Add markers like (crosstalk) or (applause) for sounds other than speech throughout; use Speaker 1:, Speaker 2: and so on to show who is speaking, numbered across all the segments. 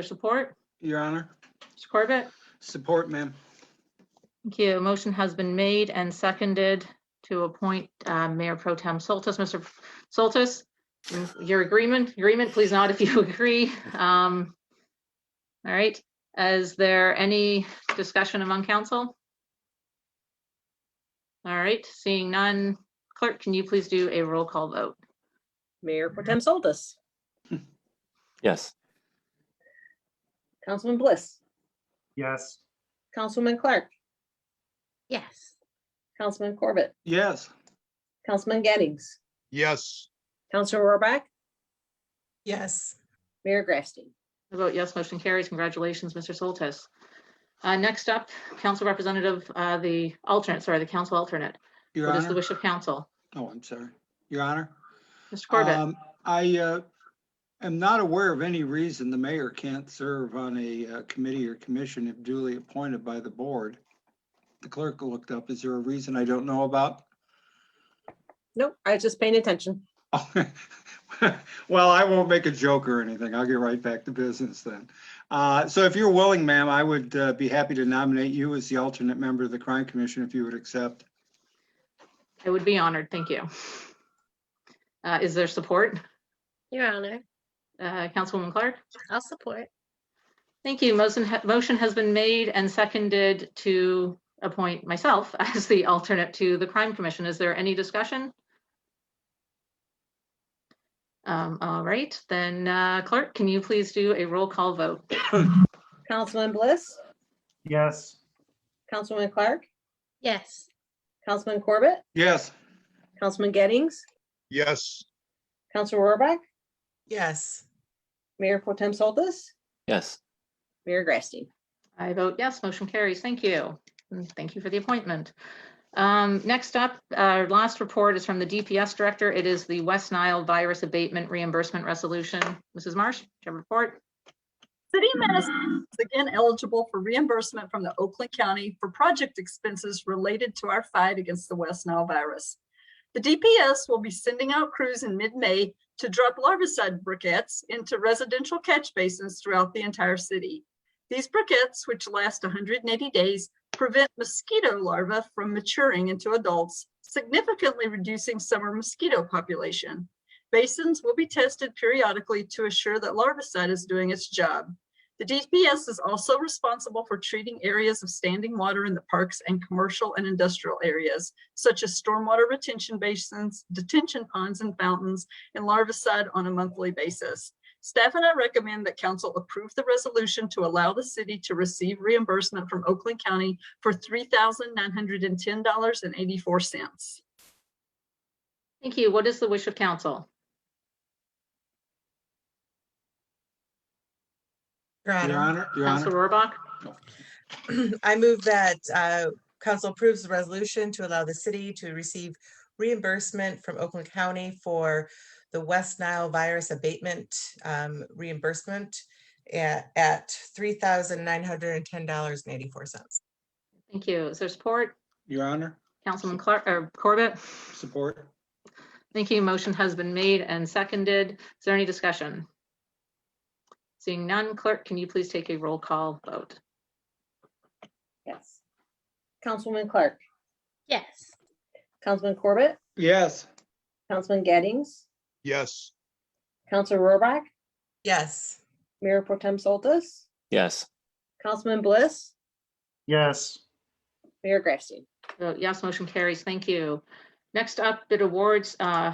Speaker 1: your support?
Speaker 2: Your Honor.
Speaker 1: Mr. Corbett?
Speaker 2: Support, ma'am.
Speaker 1: Thank you. Motion has been made and seconded to appoint uh, Mayor Pro Tem Soltis. Mr. Soltis, in your agreement, agreement, please nod if you (laughs) agree. Um, All right, is there any discussion among council? All right, seeing none, clerk, can you please do a roll call vote?
Speaker 3: Mayor Potem Soltis,
Speaker 4: Yes.
Speaker 3: Councilman Bliss,
Speaker 5: Yes.
Speaker 3: Councilwoman Clark,
Speaker 1: Yes.
Speaker 3: Councilman Corbett,
Speaker 2: Yes.
Speaker 3: Councilman Gettings,
Speaker 6: yes,
Speaker 3: Councilor Rohrbach,
Speaker 7: yes,
Speaker 3: Mayor Grabstein.
Speaker 1: I vote yes, motion carries. Congratulations, Mr. Soltis. Uh, Next up, council representative, uh, the alternate, sorry, the council alternate.
Speaker 2: Your
Speaker 1: What is the
Speaker 2: Honor.
Speaker 1: wish of council?
Speaker 2: Oh, I'm sorry. Your Honor.
Speaker 1: Mr. Corbett?
Speaker 2: Um, I uh, am not aware of any reason the mayor can't serve on a uh, committee or commission if duly appointed by the board. The clerk looked up. Is there a reason I don't know about? (laughs)
Speaker 3: Nope, I was just paying attention.
Speaker 2: Well, I won't make a joke or anything. I'll get right back to business then. Uh, So if you're willing, ma'am, I would uh, be happy to nominate you as the alternate member of the Crime Commission if you would accept.
Speaker 1: I would be honored, thank you. Uh, Is there support?
Speaker 8: Your Honor,
Speaker 1: Uh, Councilwoman Clark?
Speaker 8: I'll support.
Speaker 1: Thank you. Motion, ha- motion has been made and seconded to appoint myself (laughs) as the alternate to the Crime Commission. Is there any discussion? Um, All right, then uh, clerk, can you please do a roll call vote?
Speaker 3: Councilman Bliss,
Speaker 5: Yes.
Speaker 3: Councilwoman Clark,
Speaker 8: Yes.
Speaker 3: Councilman Corbett,
Speaker 2: Yes.
Speaker 3: Councilman Gettings,
Speaker 6: yes,
Speaker 3: Councilor Rohrbach,
Speaker 7: yes.
Speaker 3: Mayor Potem Soltis,
Speaker 4: Yes.
Speaker 3: Mayor Grabstein.
Speaker 1: I vote yes, motion carries. Thank you. And Thank you for the appointment. Um, Next up, our last report is from the DPS Director. It is the West Nile Virus Abatement Reimbursement Resolution. Mrs. Marsh, do you have a report?
Speaker 9: City of Madison is again eligible for reimbursement from the Oakland County for project expenses related to our fight against the West Nile virus. The DPS will be sending out crews in mid-May to drop larvicide briquettes into residential catch basins throughout the entire city. These briquettes, which last 180 days, prevent mosquito larvae from maturing into adults, significantly reducing summer mosquito population. Basins will be tested periodically to assure that larvicide is doing its job. The DPS is also responsible for treating areas of standing water in the parks and commercial and industrial areas, such as stormwater retention basins, detention ponds and fountains, and larvicide on a monthly basis. Staff and I recommend that council approve the resolution to allow the city to receive reimbursement from Oakland County for three thousand nine hundred and ten dollars and eighty-four cents.
Speaker 1: Thank you. What is the wish of council?
Speaker 7: Your
Speaker 2: Your
Speaker 7: Honor,
Speaker 2: Honor. Your Honor.
Speaker 1: Council Rohrbach?
Speaker 7: (clears throat) I move that uh, council approves the resolution to allow the city to receive reimbursement from Oakland County for the West Nile virus abatement um, reimbursement at, at three thousand nine hundred and ten dollars and eighty-four cents.
Speaker 1: Thank you. Is there support?
Speaker 2: Your Honor.
Speaker 1: Councilman Clark, or Corbett?
Speaker 2: Support.
Speaker 1: Thank you. Motion has been made and seconded. Is there any discussion? Seeing none, clerk, can you please take a roll call vote?
Speaker 3: Yes. Councilwoman Clark,
Speaker 8: Yes.
Speaker 3: Councilman Corbett,
Speaker 2: Yes.
Speaker 3: Councilman Gettings,
Speaker 6: yes,
Speaker 3: Councilor Rohrbach,
Speaker 7: Yes.
Speaker 3: Mayor Potem Soltis,
Speaker 4: Yes.
Speaker 3: Councilman Bliss,
Speaker 5: Yes.
Speaker 3: Mayor Grabstein.
Speaker 1: Vote yes, motion carries. Thank you. Next up, bid awards. Uh,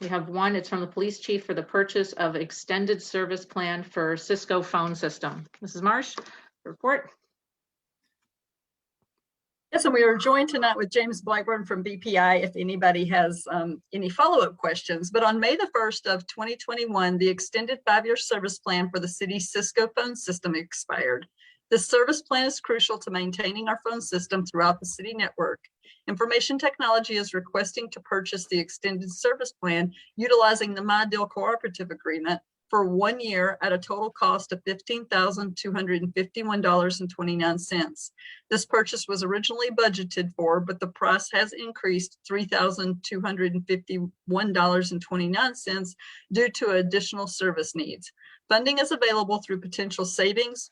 Speaker 1: We have one. It's from the police chief for the purchase of extended service plan for Cisco phone system. Mrs. Marsh, report.
Speaker 9: Yes, and we are joined tonight with James Blackburn from BPI if anybody has um, any follow-up questions. But on May the 1st of 2021, the extended five-year service plan for the city's Cisco phone system expired. This service plan is crucial to maintaining our phone system throughout the city network. Information Technology is requesting to purchase the extended service plan utilizing the My Deal Cooperative Agreement for one year at a total cost of $15,251.29. This purchase was originally budgeted for, but the price has increased three thousand two hundred and fifty-one dollars and twenty-nine cents due to additional service needs. Funding is available through potential savings,